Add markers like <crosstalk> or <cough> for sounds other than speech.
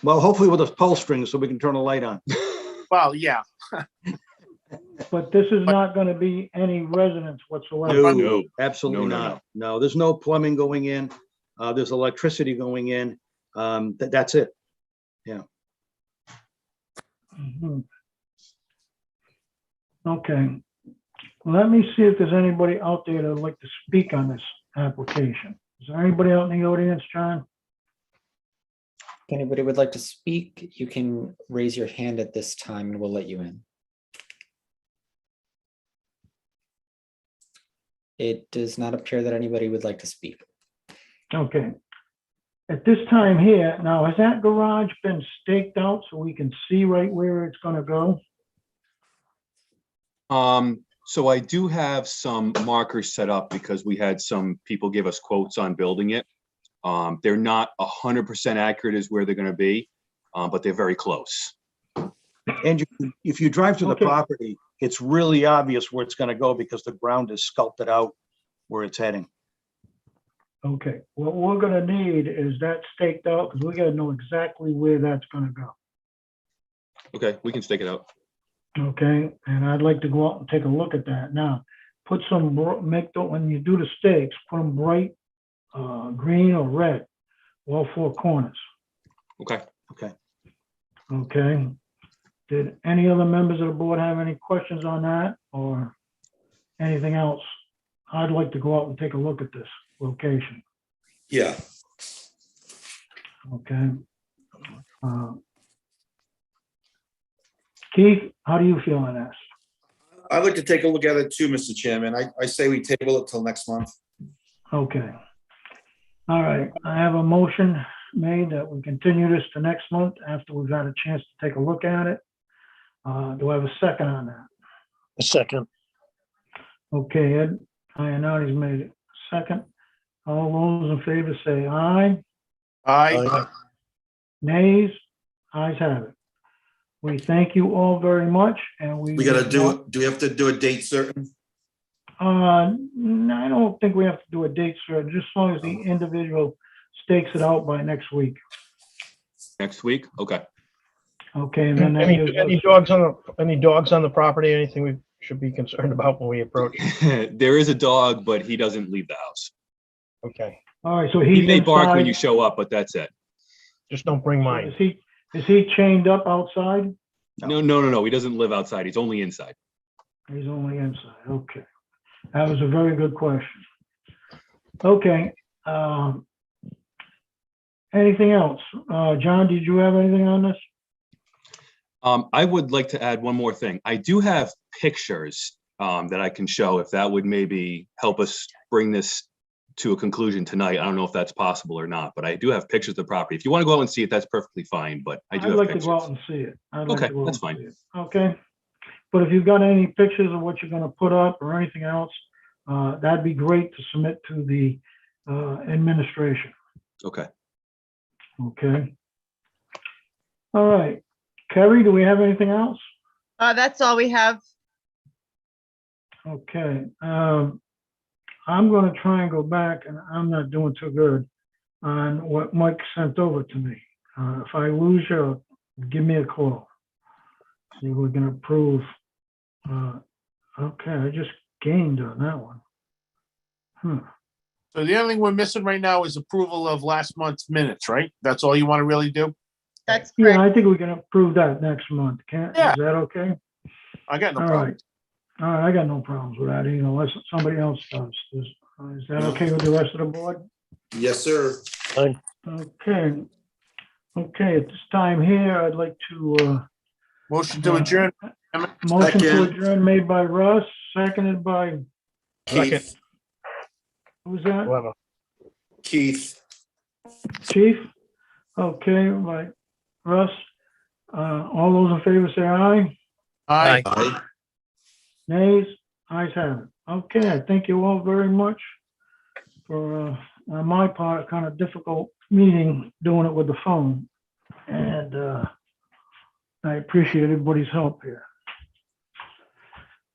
Well, hopefully with a pull string so we can turn a light on. Well, yeah, But this is not gonna be any resonance whatsoever. No, No. Absolutely No, no, not. No, there's no plumbing going in. Uh, there's electricity going in. Um, that, that's it. Mhm. Okay. Let me see if there's anybody out there that'd like to speak on this application. Is there anybody out in the audience, John? If anybody would like to speak, you can raise your hand at this time and we'll let you in. It does not appear that anybody would like to speak. Okay. At this time here, now, has that garage been staked out so we can see right where it's gonna go? Um, so I do have some markers set up because we had some people give us quotes on building it. Um, they're not a hundred percent accurate as where they're gonna be, uh, but they're very close. And you- if you drive through the Okay. property, it's really obvious where it's gonna go because the ground is sculpted out where it's heading. Okay, what we're gonna need is that staked out, because we gotta know exactly where that's gonna go, Okay, we can stake it out. okay? And I'd like to go out and take a look at that now. Put some, bro- make, the when you do the stakes, put them bright, uh, green or red, all four corners, Okay. okay? Did any other members of the board have any questions on that or anything else? I'd like to go out and take a look at this location. Yeah, Okay. Uh, Keith, how do you feel on this? I'd like to take a look at it too, Mr. Chairman. I, I say we table it till next month. Okay. All right, I have a motion made that we continue this to next month after we've had a chance to take a look at it. Uh, do I have a second on that? A second. Okay, Ed, Ianardi's made it second. All those in favor say aye. Oh, Oh, I, Nays, ayes have it. We thank you all very much and we. We gotta do, it. do we have to do a date certain? Uh, no, I don't think we have to do a date certain, just as long as the Um. individual stakes it out by next week. Next week? Okay. <laughs> Okay, and then that Any, <laughs> gives any us- dogs on, the- any dogs on the property, anything we should be concerned about when we approach? There is a dog, but he doesn't leave the house. Okay, all right, so He he's may bark when you inside. show up, but that's it. just don't bring Is mine. he, is he chained up outside? No, no, no, no. He doesn't live outside. He's only inside. He's only inside, okay. That was a very good question. Okay, um, anything else? Uh, John, did you have anything on this? Um, I would like to add one more thing. I do have pictures um, that I can show if that would maybe help us bring this to a conclusion tonight. I don't know if that's possible or not, but I do have pictures of the property. If you want to go out and see it, that's perfectly fine, but I would do have like to go out pictures. and see it. I'd like Okay, to go out that's and fine. see it. Okay, but if you've got any pictures of what you're gonna put up or anything else, uh, that'd be great to submit to the, uh, administration, Okay. okay? All right, Kerry, do we have anything else? Uh, that's all we have. Okay, um, I'm gonna try and go back, and I'm not doing too good on what Mike sent over to me. Uh, if I lose you, give me a call. See, if we can approve. Uh, okay, I just gained on that one. Hmm, so the only thing we're missing right now is approval of last month's minutes, right? That's all you want to really do? That's yeah, correct. I think we can approve that next month, can't, Yeah. is that okay? I got no All problem. right. All right, I got no problems with that, either, unless somebody else does. Is, is that okay with the rest of the board? Yes, sir. Okay. Okay, at this time here, I'd like to, uh, Motion to adjourn. motion to Second. adjourn made by Russ, seconded by, Keith, who's that? Whatever. Keith, Chief? Okay, by Russ. Uh, all those in favor say aye. Aye. aye. Nays, ayes have it. Okay, I thank you all very much for, uh, on my part, kind of difficult meeting, doing it with the phone. And, uh, I appreciate everybody's help here.